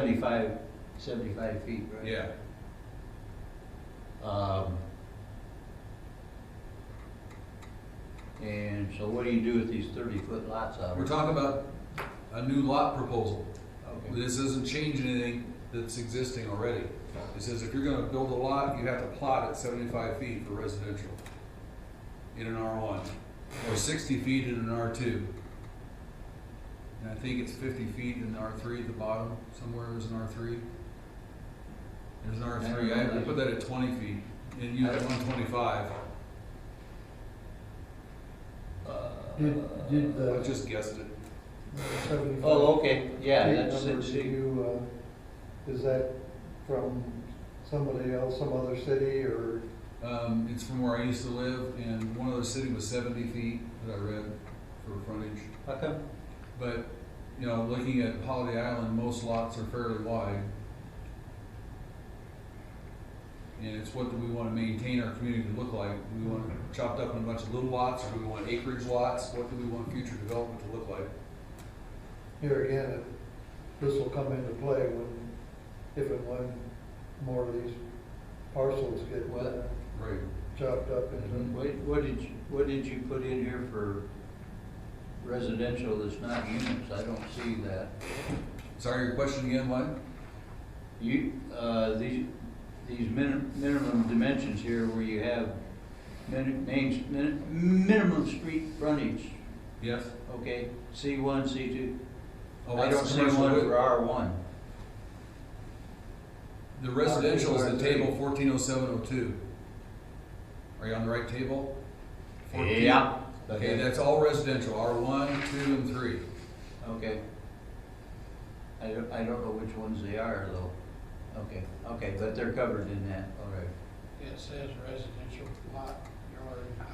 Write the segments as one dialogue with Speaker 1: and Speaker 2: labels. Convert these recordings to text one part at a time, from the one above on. Speaker 1: 75, 75 feet, right?
Speaker 2: Yeah,
Speaker 1: Um, And so what do you do with these 30-foot lots out
Speaker 2: we're
Speaker 1: there?
Speaker 2: talking about a new lot proposal.
Speaker 1: Okay.
Speaker 2: This doesn't change anything that's existing already. It says if you're gonna build a lot, you have to plot it seventy-five feet for residential in an R one, or sixty feet in an R two. And I think it's fifty feet in R three at the bottom, somewhere there's an R three. There's an R three, I I put that at twenty feet, and you have one twenty-five,
Speaker 1: Uh,
Speaker 3: Did, did
Speaker 2: I
Speaker 3: the
Speaker 2: just guessed it.
Speaker 3: seventy-five?
Speaker 1: Oh, okay, yeah,
Speaker 3: feet
Speaker 1: that's,
Speaker 3: number
Speaker 1: that's-
Speaker 3: to you, uh, Is that from somebody else, some other city, or
Speaker 2: Um, it's from where I used to live, and one other city was seventy feet that I read for frontage.
Speaker 1: how come?
Speaker 2: But, you know, looking at Holiday Island, most lots are fairly wide. And it's what do we wanna maintain our community to look like? Do we want it chopped up in a bunch of little lots, or do we want acreage lots? What do we want future development to look like?
Speaker 3: here again, if this will come into play when, if and when more of these parcels get
Speaker 1: Well- mm-hmm.
Speaker 3: uh,
Speaker 2: Right.
Speaker 3: chopped up into.
Speaker 1: What, what did, you- what did you put in here for residential that's not units? I don't see that.
Speaker 2: Sorry, your question again, what?
Speaker 1: You, uh, these, these min- minimum dimensions here where you have min- main, min- minimum street frontage,
Speaker 2: Yes?
Speaker 1: okay? C one, C two.
Speaker 2: Oh,
Speaker 1: I
Speaker 2: that's
Speaker 1: don't see
Speaker 2: commercial
Speaker 1: one
Speaker 2: with-
Speaker 1: for R one.
Speaker 2: The residential is the
Speaker 3: R3.
Speaker 2: table fourteen oh seven oh two. Are you on the right table? 14? Okay, that's all residential, R one, two, and three.
Speaker 1: Okay. I don't, I don't know which ones they are though. Okay, okay, but they're covered in that, all right.
Speaker 4: It says residential lot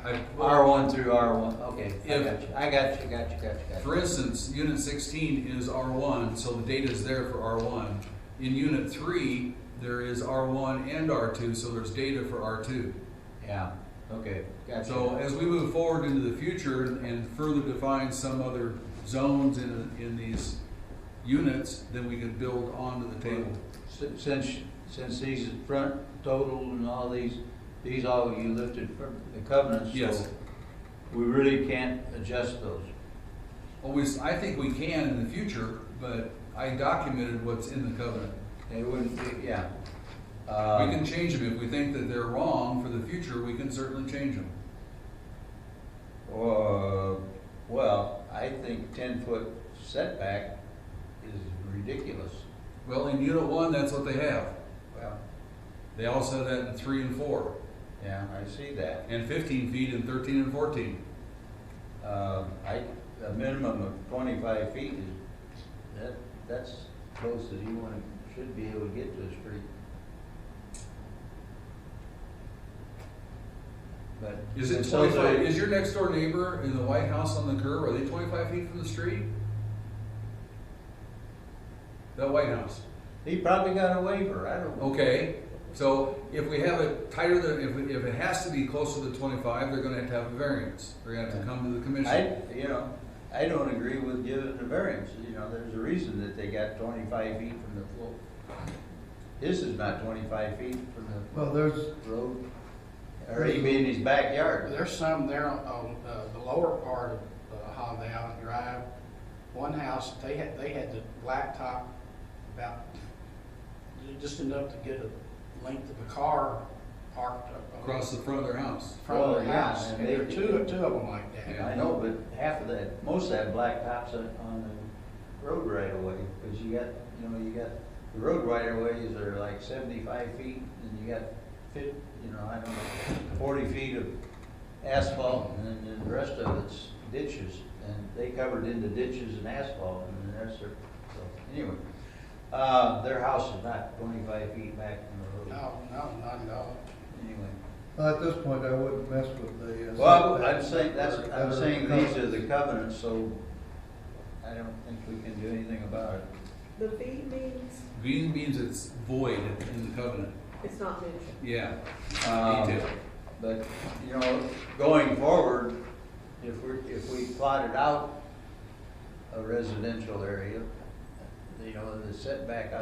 Speaker 2: I-
Speaker 4: yard.
Speaker 1: R one through R one, okay, I
Speaker 2: If-
Speaker 1: got you, I got you, got you, got you, got you.
Speaker 2: For instance, unit sixteen is R one, so the data is there for R one. In unit three, there is R one and R two, so there's data for R two.
Speaker 1: Yeah, okay, got you.
Speaker 2: So as we move forward into the future and further define some other zones in, in these units, then we can build onto the table.
Speaker 1: Si- Since, since these is front total and all these, these all you lifted from the covenants. so
Speaker 2: Yes.
Speaker 1: We really can't adjust those.
Speaker 2: Always, I think we can in the future, but I documented what's in the covenant.
Speaker 1: They wouldn't, be- yeah. Um,
Speaker 2: We can change them if we think that they're wrong for the future, we can certainly change them.
Speaker 1: Uh, well, I think ten-foot setback is ridiculous.
Speaker 2: Well, in unit one, that's what they have.
Speaker 1: Well.
Speaker 2: They also have that in three and four,
Speaker 1: Yeah, I see that.
Speaker 2: and fifteen feet in thirteen and fourteen.
Speaker 1: Um, I, a minimum of twenty-five feet is, that, that's close as you wanna, should be able to get to a street. But.
Speaker 2: Is it
Speaker 1: It sounds
Speaker 2: twenty-five,
Speaker 1: like-
Speaker 2: is your next door neighbor in the White House on the curb, are they twenty-five feet from the street? That White House,
Speaker 1: He probably got a waiver, I don't know.
Speaker 2: okay, so if we have it tighter than, if, if it has to be closer to twenty-five, they're gonna have to have a variance. They're gonna have to come to the commission.
Speaker 1: I, you know, I don't agree with giving the variance, you know, there's a reason that they got twenty-five feet from the floor. This is not twenty-five feet from
Speaker 3: Well, there's,
Speaker 1: the road, or even in his backyard.
Speaker 4: There's some there on, uh, the lower part of uh, Holiday Island Drive. One house, they had, they had the blacktop about, just enough to get a length of a car parked up.
Speaker 2: Across the front of their house.
Speaker 4: in front of
Speaker 1: Well,
Speaker 4: their
Speaker 1: yeah,
Speaker 4: house.
Speaker 1: and
Speaker 4: And there
Speaker 1: they-
Speaker 4: are two, two of them like that.
Speaker 2: Yeah.
Speaker 1: I know, but half of that, most of that blacktop's on- on the road right away, because you got, you know, you got, the road right of ways are like seventy-five feet, and you got fif, you know, I don't know, forty feet of asphalt, and then- then the rest of it's ditches, and they covered in the ditches and asphalt, and the rest are, so, anyway. Uh, their house is not twenty-five feet back from the road,
Speaker 4: No, no, not at all.
Speaker 1: anyway.
Speaker 3: well, at this point, I wouldn't mess with the. uh,
Speaker 1: Well, I'm
Speaker 3: setbacks
Speaker 1: saying, that's,
Speaker 3: that
Speaker 1: I'm
Speaker 3: are
Speaker 1: saying
Speaker 3: covered.
Speaker 1: these are the covenants, so I don't think we can do anything about it.
Speaker 5: The V means
Speaker 2: Green means it's void in the covenant.
Speaker 5: it's not mentioned.
Speaker 2: Yeah,
Speaker 1: Um,
Speaker 2: detail.
Speaker 1: But, you know, going forward, if we're, if we plotted out a residential area, you know, the setback